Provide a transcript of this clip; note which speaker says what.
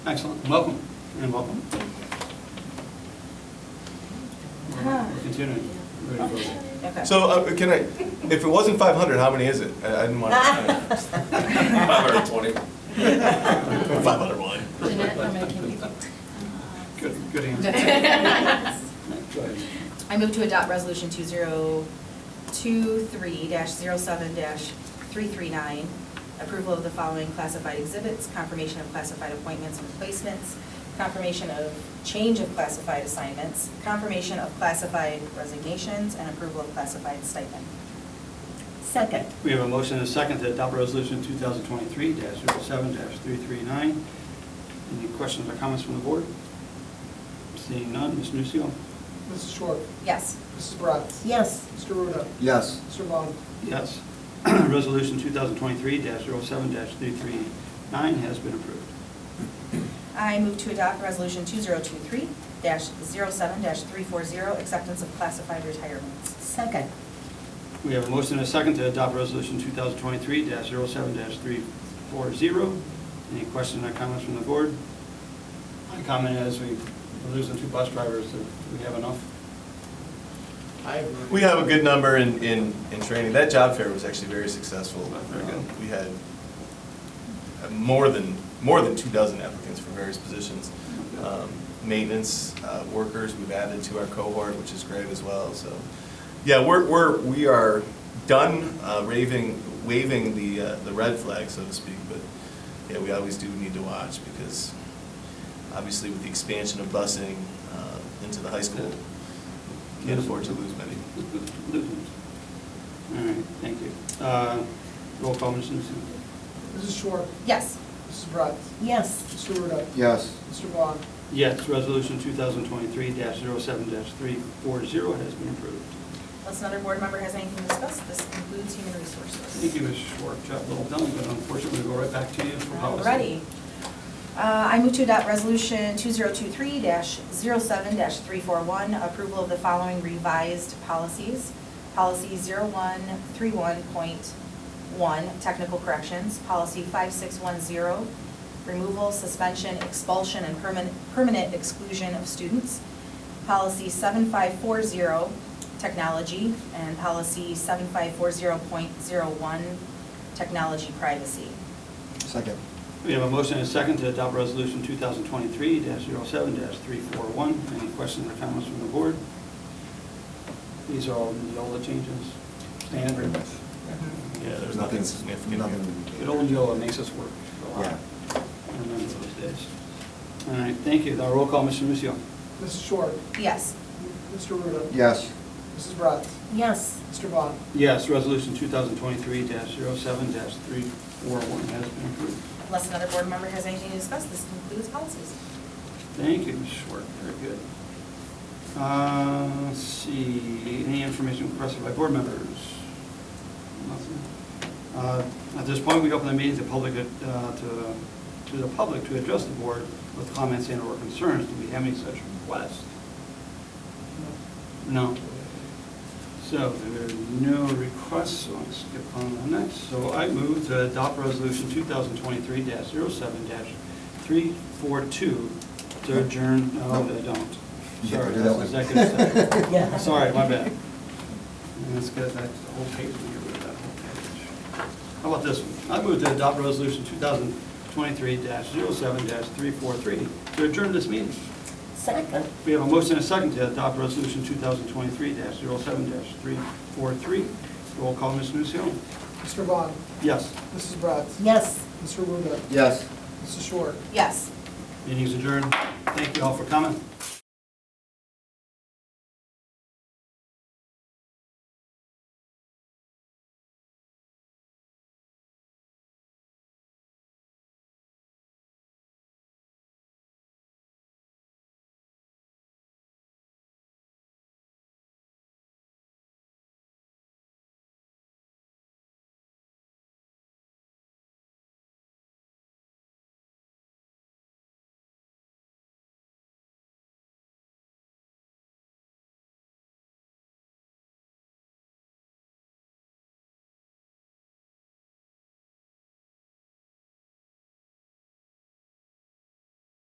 Speaker 1: Excellent, welcome, and welcome.
Speaker 2: Huh.
Speaker 1: We're continuing. We're ready to vote.
Speaker 2: Okay.
Speaker 3: So uh, can I, if it wasn't 500, how many is it? I I didn't want to. 520. 501.
Speaker 4: Jeanette, I'm making
Speaker 1: Good, good answer.
Speaker 4: I
Speaker 1: Go ahead.
Speaker 4: move to adopt resolution two zero two three dash zero seven dash three three nine, approval of the following classified exhibits, confirmation of classified appointments and replacements, confirmation of change of classified assignments, confirmation of classified resignations, and approval of classified stipend.
Speaker 2: Second.
Speaker 1: We have a motion and a second to adopt resolution 2023-07-339. Any questions or comments from the board? Seeing none, Ms. Nusio.
Speaker 5: Mrs. Short.
Speaker 4: Yes.
Speaker 5: Mrs. Bratz.
Speaker 2: Yes.
Speaker 5: Mr. Ruda.
Speaker 6: Yes,
Speaker 5: Mr. Vaughn.
Speaker 1: Yes. Resolution 2023-07-339 has been approved.
Speaker 4: I move to adopt resolution two zero two three dash zero seven dash three four zero, acceptance of classified retirements.
Speaker 2: Second.
Speaker 1: We have a motion and a second to adopt resolution 2023-07-340. Any questions or comments from the board? My comment is we- we're losing two bus drivers. Do we have enough?
Speaker 3: We have a good number in, in, in training. That job fair was actually very successful.
Speaker 1: Very good.
Speaker 3: We had uh, more than, more than two dozen applicants for various positions. Um, Maintenance uh, workers, we've added to our cohort, which is great as well, so. Yeah, we're, we're, we are done uh, raving, waving the, uh, the red flag, so to speak, but yeah, we always do need to watch because obviously with the expansion of busing uh, into the high school, can't afford to lose many.
Speaker 1: Losing. All right, thank you. Uh, Roll call, Ms. Newsom.
Speaker 5: Mrs. Short.
Speaker 4: Yes.
Speaker 5: Mrs. Bratz.
Speaker 2: Yes.
Speaker 5: Mr. Ruda.
Speaker 6: yes,
Speaker 5: Mr. Vaughn.
Speaker 1: Yes, resolution 2023-07-340 has been approved.
Speaker 4: Unless another board member has anything to discuss, this concludes human
Speaker 1: Thank
Speaker 4: resources.
Speaker 1: you, Ms. Schwartz. Job well done, but unfortunately, we'll go right back to you for policy.
Speaker 4: Alrighty. Uh, I move to adopt resolution 2023-07-341, approval of the following revised policies. Policy 0131.1, technical corrections. Policy 5610, removal, suspension, expulsion, and permanent permanent exclusion of students. Policy 7540, technology, and policy 7540.01, technology privacy.
Speaker 6: second,
Speaker 1: We have a motion and a second to adopt resolution 2023-07-341. Any questions or comments from the board? These are all Neola changes. Standard.
Speaker 3: Yeah, there's nothing
Speaker 6: nothing,
Speaker 3: significant here.
Speaker 1: Good
Speaker 6: nothing.
Speaker 1: old Neola makes us work a lot.
Speaker 6: Yeah.
Speaker 1: I remember those days. All right, thank you. Now roll call, Mr. Nucio.
Speaker 5: Mrs. Short.
Speaker 4: Yes.
Speaker 5: Mr. Ruda.
Speaker 6: Yes,
Speaker 5: Mrs. Bratz.
Speaker 2: Yes.
Speaker 5: Mr. Vaughn.
Speaker 1: Yes, resolution 2023-07-341 has been approved.
Speaker 4: Unless another board member has anything to discuss, this concludes policies.
Speaker 1: Thank you, Ms. Schwartz, very good. Uh, Let's see, any information requested by board members? Nothing. Uh, At this point, we open the meeting to public, uh, to to the public to address the board with comments and/or concerns. Do we have any such requests? No. So there are no requests, so I'll skip on the next. So I move to adopt resolution 2023-07-342 to adjourn, no, I don't.
Speaker 6: You get
Speaker 1: Sorry,
Speaker 6: rid of
Speaker 1: that's
Speaker 6: that one.
Speaker 1: executive session.
Speaker 2: Yeah.
Speaker 1: Sorry, my bad. And Let's get that whole page, we get rid of that whole page. How about this one? I move to adopt resolution 2023-07-343 to adjourn this meeting.
Speaker 2: Second.
Speaker 1: We have a motion and a second to adopt resolution 2023-07-343. Roll call, Ms. Nusio.
Speaker 5: Mr. Vaughn.
Speaker 1: Yes,
Speaker 5: Mrs. Bratz.
Speaker 2: Yes.
Speaker 5: Mr. Ruda.
Speaker 6: yes.
Speaker 5: Mrs. Short.
Speaker 4: Yes.
Speaker 1: meeting's adjourned. Thank you all for coming.